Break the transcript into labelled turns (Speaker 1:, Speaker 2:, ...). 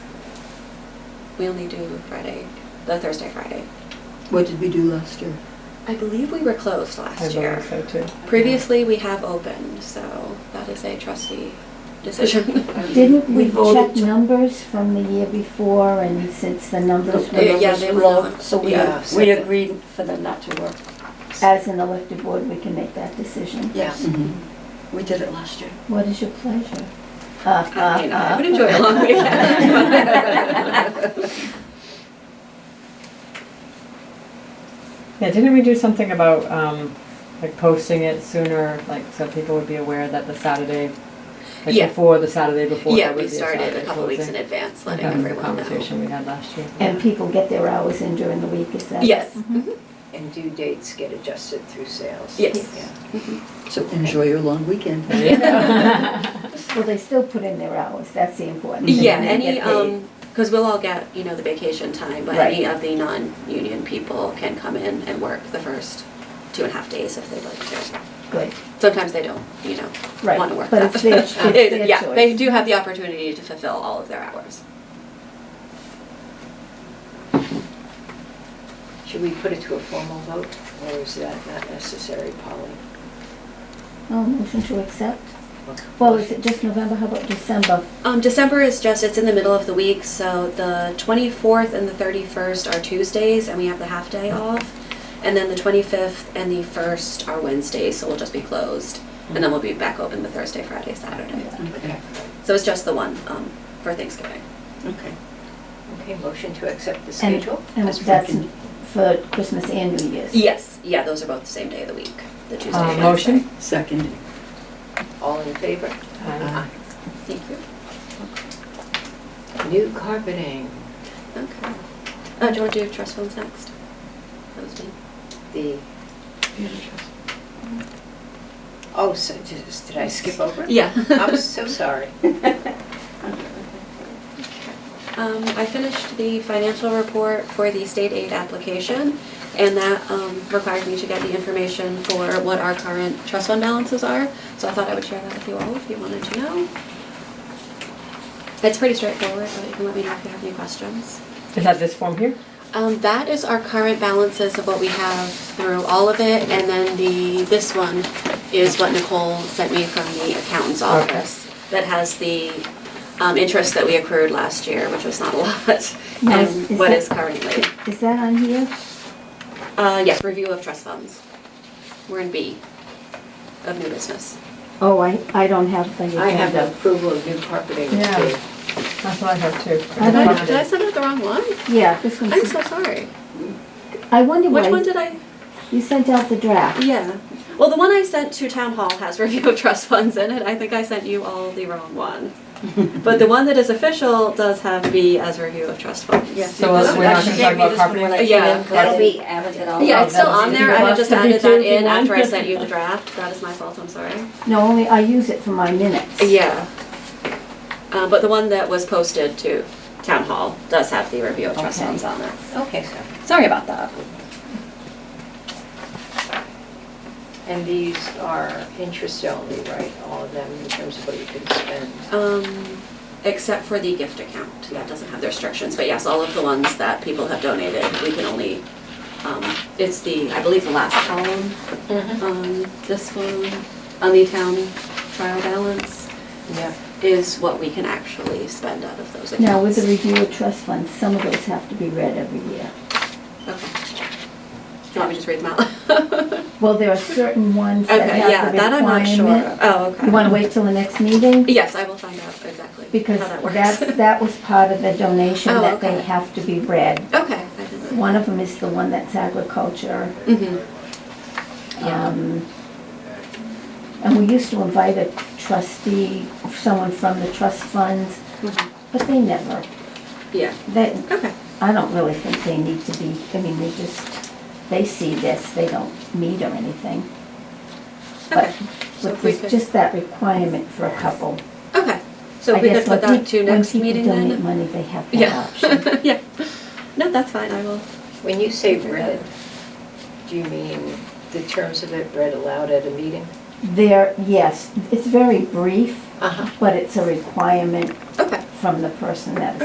Speaker 1: we only do Friday, the Thursday, Friday.
Speaker 2: What did we do last year?
Speaker 1: I believe we were closed
Speaker 3: I
Speaker 1: last year.
Speaker 3: believe so too.
Speaker 1: Previously, we have opened, so that is a trustee decision.
Speaker 4: Didn't we
Speaker 2: voted
Speaker 4: check
Speaker 2: to-
Speaker 4: numbers from the year before and since the numbers
Speaker 1: Uh,
Speaker 4: were
Speaker 1: yeah, they were
Speaker 5: low,
Speaker 1: not-
Speaker 5: so we,
Speaker 1: yeah.
Speaker 5: we agreed for them not to work.
Speaker 4: as an elected board, we can make that decision.
Speaker 5: Yes,
Speaker 2: Mhm.
Speaker 5: we did it last year.
Speaker 4: What is your pleasure?
Speaker 1: Uh, I mean, I would enjoy a long weekend.
Speaker 3: Yeah, didn't we do something about, um, like posting it sooner, like so people would be aware that the Saturday, like
Speaker 1: Yeah.
Speaker 3: before the Saturday before
Speaker 1: Yeah,
Speaker 3: there would
Speaker 1: we
Speaker 3: be a
Speaker 1: started a
Speaker 3: Saturday
Speaker 1: couple weeks in
Speaker 3: closing?
Speaker 1: advance, letting
Speaker 3: That was the
Speaker 1: everyone know.
Speaker 3: Conversation we had last year.
Speaker 4: And people get their hours in during the week, is that?
Speaker 1: Yes,
Speaker 3: Mm-hmm.
Speaker 4: Mhm.
Speaker 1: mhm,
Speaker 6: And due dates get adjusted through sales.
Speaker 1: yes.
Speaker 3: Mm-hmm.
Speaker 2: So enjoy your long weekend.
Speaker 3: There you go.
Speaker 4: Well, they still put in their hours, that's the important thing.
Speaker 1: Yeah,
Speaker 4: and they
Speaker 1: any,
Speaker 4: get paid.
Speaker 1: um, because we'll all get, you know, the vacation time, but
Speaker 4: Right.
Speaker 1: any of the non-union people can come in and work the first two and a half days if they'd like to.
Speaker 4: Good,
Speaker 1: Sometimes they don't, you know,
Speaker 4: Right,
Speaker 1: want to work
Speaker 4: but
Speaker 1: that.
Speaker 4: it's their- it's their
Speaker 1: Yeah, they
Speaker 4: choice.
Speaker 1: do have the opportunity to fulfill all of their hours.
Speaker 6: Should we put it to a formal vote, or is that not necessary, Polly?
Speaker 4: oh, motion to accept. Well, is it just November, how about December?
Speaker 1: Um, December is just, it's in the middle of the week, so the 24th and the 31st are Tuesdays, and we have the half day off. And then the 25th and the 1st are Wednesdays, so we'll just be closed. And then we'll be back open the Thursday, Friday, Saturday.
Speaker 6: Okay,
Speaker 1: So it's just the one um, for Thanksgiving.
Speaker 2: Okay.
Speaker 6: Okay, motion to accept the
Speaker 4: And-
Speaker 6: schedule?
Speaker 4: And
Speaker 2: That's
Speaker 4: that's
Speaker 2: second.
Speaker 4: for Christmas and New Year's.
Speaker 1: Yes, yeah, those are both the same day of the week, the Tuesday
Speaker 3: Uh,
Speaker 1: and Wednesday.
Speaker 3: motion?
Speaker 2: Second.
Speaker 6: All in favor?
Speaker 3: Aye.
Speaker 1: Thank you.
Speaker 6: New carpeting,
Speaker 1: Okay. Uh, do you want to do trust funds next? That was me.
Speaker 6: the, oh, so, just- did I skip over?
Speaker 1: Yeah.
Speaker 6: I'm so sorry.
Speaker 1: Um, I finished the financial report for the state aid application, and that um, required me to get the information for what our current trust fund balances are. So I thought I would share that with you all if you wanted to know. It's pretty straightforward, but you can let me know if you have any questions.
Speaker 3: Is that this form here?
Speaker 1: Um, that is our current balances of what we have through all of it, and then the, this one is what Nicole sent me from the accountant's
Speaker 3: Okay.
Speaker 1: office. That has the, um, interest that we accrued last year, which was not a lot,
Speaker 4: Now,
Speaker 1: and what
Speaker 4: that-
Speaker 1: is currently.
Speaker 4: Is that on here?
Speaker 1: Uh, yes, review of trust funds. We're in B of new business.
Speaker 4: Oh, I, I don't have the agenda.
Speaker 6: I have the approval of new carpeting.
Speaker 3: Yeah.
Speaker 6: too.
Speaker 3: That's what I have too.
Speaker 4: I
Speaker 1: Did
Speaker 4: don't
Speaker 1: I,
Speaker 4: have
Speaker 1: did I send out the wrong one?
Speaker 4: Yeah, this one's.
Speaker 1: I'm so sorry.
Speaker 4: I wonder why.
Speaker 1: Which one did I?
Speaker 4: You sent out the draft.
Speaker 1: Yeah. Well, the one I sent to town hall has review of trust funds in it. I think I sent you all the wrong one. But the one that is official does have B as review of trust funds.
Speaker 5: Yes.
Speaker 3: So uh, we're not gonna
Speaker 5: She
Speaker 3: talk
Speaker 5: gave me
Speaker 3: about
Speaker 5: this one when I
Speaker 3: carpeting?
Speaker 5: came
Speaker 1: Yeah.
Speaker 5: in, That'll be added it all.
Speaker 1: Yeah,
Speaker 3: Oh,
Speaker 1: it's still
Speaker 3: that's-
Speaker 1: on there. I just
Speaker 3: that's the
Speaker 1: added that in
Speaker 3: B2
Speaker 1: after I
Speaker 3: one.
Speaker 1: sent you the draft. That is my fault, I'm sorry.
Speaker 4: No, only I use it for my minutes.
Speaker 1: Yeah. Uh, but the one that was posted to town hall does have the review of trust
Speaker 4: Okay.
Speaker 1: funds on there.
Speaker 6: Okay, so,
Speaker 1: Sorry about that.
Speaker 6: and these are interest only, right, all of them in terms of what you can spend?
Speaker 1: Um, except for the gift account, that doesn't have the restrictions, but yes, all of the ones that people have donated, we can only, um, it's the, I believe, the last column,
Speaker 6: Mm-hmm.
Speaker 1: um, this one, on the town trial balance
Speaker 6: Yeah.
Speaker 1: is what we can actually spend out of those accounts.
Speaker 4: Now, with the review of trust funds, some of those have to be read every year.
Speaker 1: Okay. Do you want me to just read them out?
Speaker 4: Well, there are certain ones that
Speaker 1: Okay,
Speaker 4: have
Speaker 1: yeah,
Speaker 4: the requirement.
Speaker 1: that I'm not sure. Oh, okay.
Speaker 4: You want to wait till the next meeting?
Speaker 1: Yes, I will find out exactly
Speaker 4: Because
Speaker 1: how that works.
Speaker 4: that, that was part of the donation,
Speaker 1: Oh,
Speaker 4: that they
Speaker 1: okay.
Speaker 4: have to be read.
Speaker 1: Okay, I didn't know.
Speaker 4: One of them is the one that's agriculture.
Speaker 1: Mm-hmm, Yeah.
Speaker 4: Um, And we used to invite a trustee, someone from the trust funds, but they never,
Speaker 1: Mm-hmm. yeah,
Speaker 4: they,
Speaker 1: okay,
Speaker 4: I don't really think they need to be, I mean, they just, they see this, they don't meet or anything.
Speaker 1: okay.
Speaker 4: But
Speaker 1: So
Speaker 4: with
Speaker 1: if we
Speaker 4: this-
Speaker 1: could-
Speaker 4: just that requirement for a couple.
Speaker 1: Okay, so
Speaker 4: I
Speaker 1: if we could
Speaker 4: guess
Speaker 1: put
Speaker 4: when
Speaker 1: that
Speaker 4: peop-
Speaker 1: to next meeting
Speaker 4: When people
Speaker 1: then?
Speaker 4: donate money, they have that
Speaker 1: Yeah,
Speaker 4: option.
Speaker 1: yeah. No, that's fine, I will.
Speaker 6: When you say read, do you mean the terms of it read aloud at a meeting?
Speaker 4: There, yes, it's very brief,
Speaker 6: Uh-huh.
Speaker 4: but it's a requirement
Speaker 1: Okay.
Speaker 4: from the person that